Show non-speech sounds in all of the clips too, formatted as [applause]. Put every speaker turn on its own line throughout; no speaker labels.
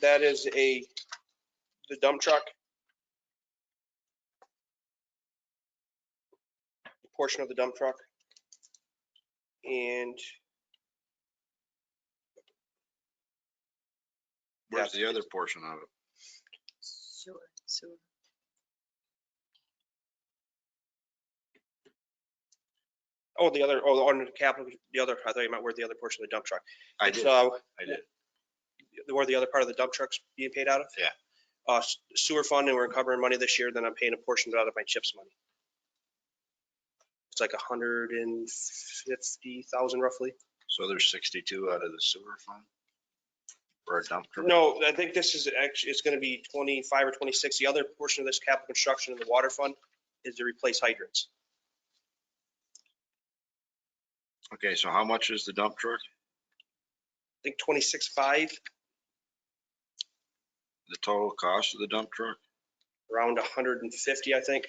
That is a, the dump truck. Portion of the dump truck. And
Where's
Yeah.
the other portion of it?
Sure, sure.
Oh, the other, oh, on the capital, the other, I thought you meant where the other portion of the dump truck.
I
It's,
did,
uh,
I did.
Where the other part of the dump truck's being paid out of?
Yeah.
Uh, s- sewer fund, and we're covering money this year, then I'm paying a portion of it out of my CHIPS money. It's like a hundred and fifty thousand roughly.
So there's 62 out of the sewer fund? For a dump truck?
No, I think this is actually, it's gonna be twenty-five or twenty-six. The other portion of this capital construction in the water fund is to replace hydrants.
Okay, so how much is the dump truck?
I think twenty-six-five,
The total cost of the dump truck?
around a hundred and fifty, I think.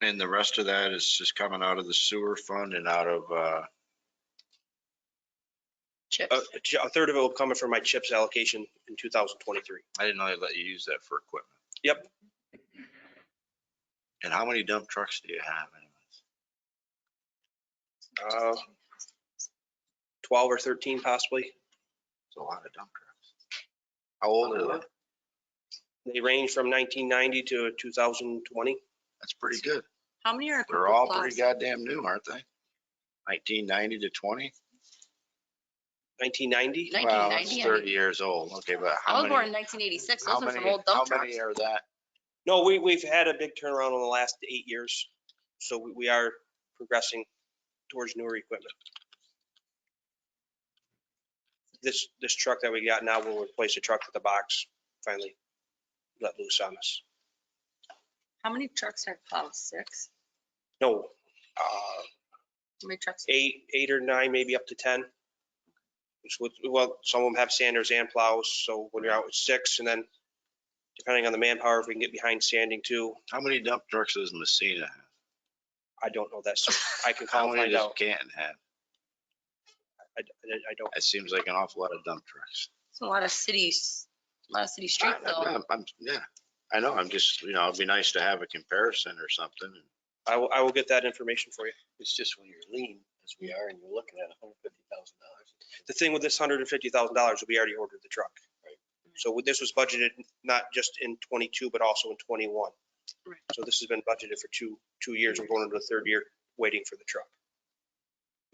And the rest of that is just coming out of the sewer fund and out of, uh,
A
Chips.
a third of it will come from my CHIPS allocation in two thousand twenty-three.
I didn't know they let you use that for equipment.
Yep.
And how many dump trucks do you have anyways?
Uh, 12 or 13 possibly.
It's a lot of dump trucks. How old are they?
They range from 1990 to 2020.
That's pretty good.
How many are?
They're
Cooper
all pretty
Plaza?
goddamn new, aren't they? 1990 to 20?
1990,
Wow, it's
1990, I think.
30 years old. Okay, but
I
how
was
many,
born in 1986.
how
Those are
many,
some old
how
dump trucks.
many are that?
no, we, we've had a big turnaround in the last eight years. So we, we are progressing towards newer equipment. This, this truck that we got now will replace the truck with the box finally let loose on us.
How many trucks have plows? Six?
No, uh,
How many trucks?
eight, eight or nine, maybe up to 10. It's with- Well, some of them have sanders and plows, so when you're out with six, and then depending on the manpower, if we can get behind sanding too,
How many dump trucks does Messina have?
I don't know that, so I can
How
call and
many
find
does
out.
Canton have?
I I- I don't,
That seems like an awful lot of dump trucks.
It's a lot of cities, a lot of city streets though.
I'm- I'm- Yeah, I know. I'm just, you know, it'd be nice to have a comparison or something.
I will, I will get that information for you.
It's just when you're lean, as we are, and you're looking at hundred fifty thousand dollars.
The thing with this $150,000, we already ordered the truck.
Right.
So with- this was budgeted not just in 22, but also in 21.
Right.
So this has been budgeted for two, two years. We're going into the third year waiting for the truck.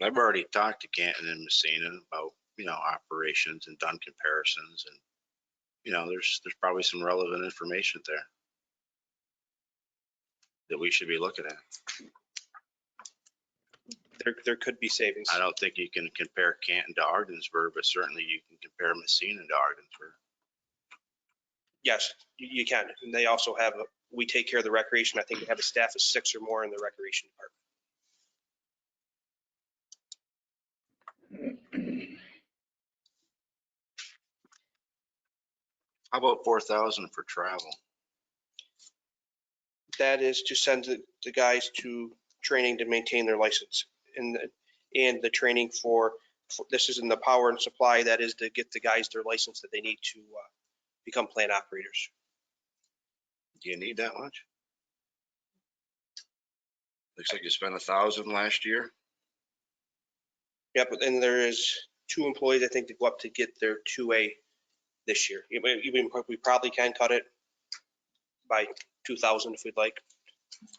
I've already talked to Canton and Messina about, you know, operations and done comparisons and, you know, there's, there's probably some relevant information there that we should be looking at.
There, there could be savings.
I don't think you can compare Canton to Ardensburg, but certainly you can compare Messina to Ardensburg.
Yes, you you can. And they also have, a- we take care of the recreation. I think we have a staff of six or more in the recreation department.
How about four thousand for travel?
That is to send the the guys to training to maintain their license. And, the- and the training for, for- this is in the power and supply, that is to get the guys their license that they need to uh, become plant operators.
Do you need that much? Looks like you spent a thousand last year.
Yep, but then there is two employees, I think, to go up to get their 2A this year. You may- you may- We probably can cut it by 2,000 if we'd like.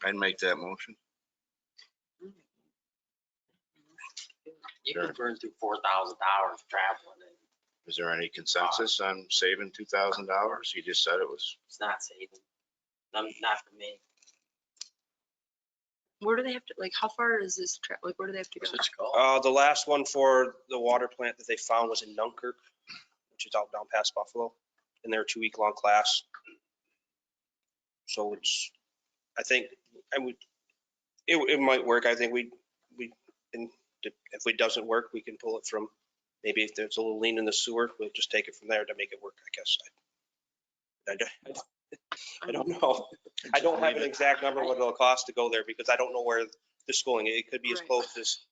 I'd make that motion.
You
Sure.
could burn through four thousand dollars traveling, and
Is there any consensus on saving two thousand dollars? You just said it was
it's not saving. Not, not for me.
Where do they have to, like, how far is this truck? Like, where do they have to go?
It's called.
Uh, the last one for the water plant that they found was in Dunkirk, which is out down past Buffalo, and they're a two-week long class. So it's, I think, I would, it, it might work. I think we, we, and if it doesn't work, we can pull it from, maybe if there's a little lean in the sewer, we'll just take it from there to make it work, I guess. I- I don't- [laughs] I don't know. I don't have an exact number what it'll cost to go there because I don't know where the schooling, it could be as
Right.
close as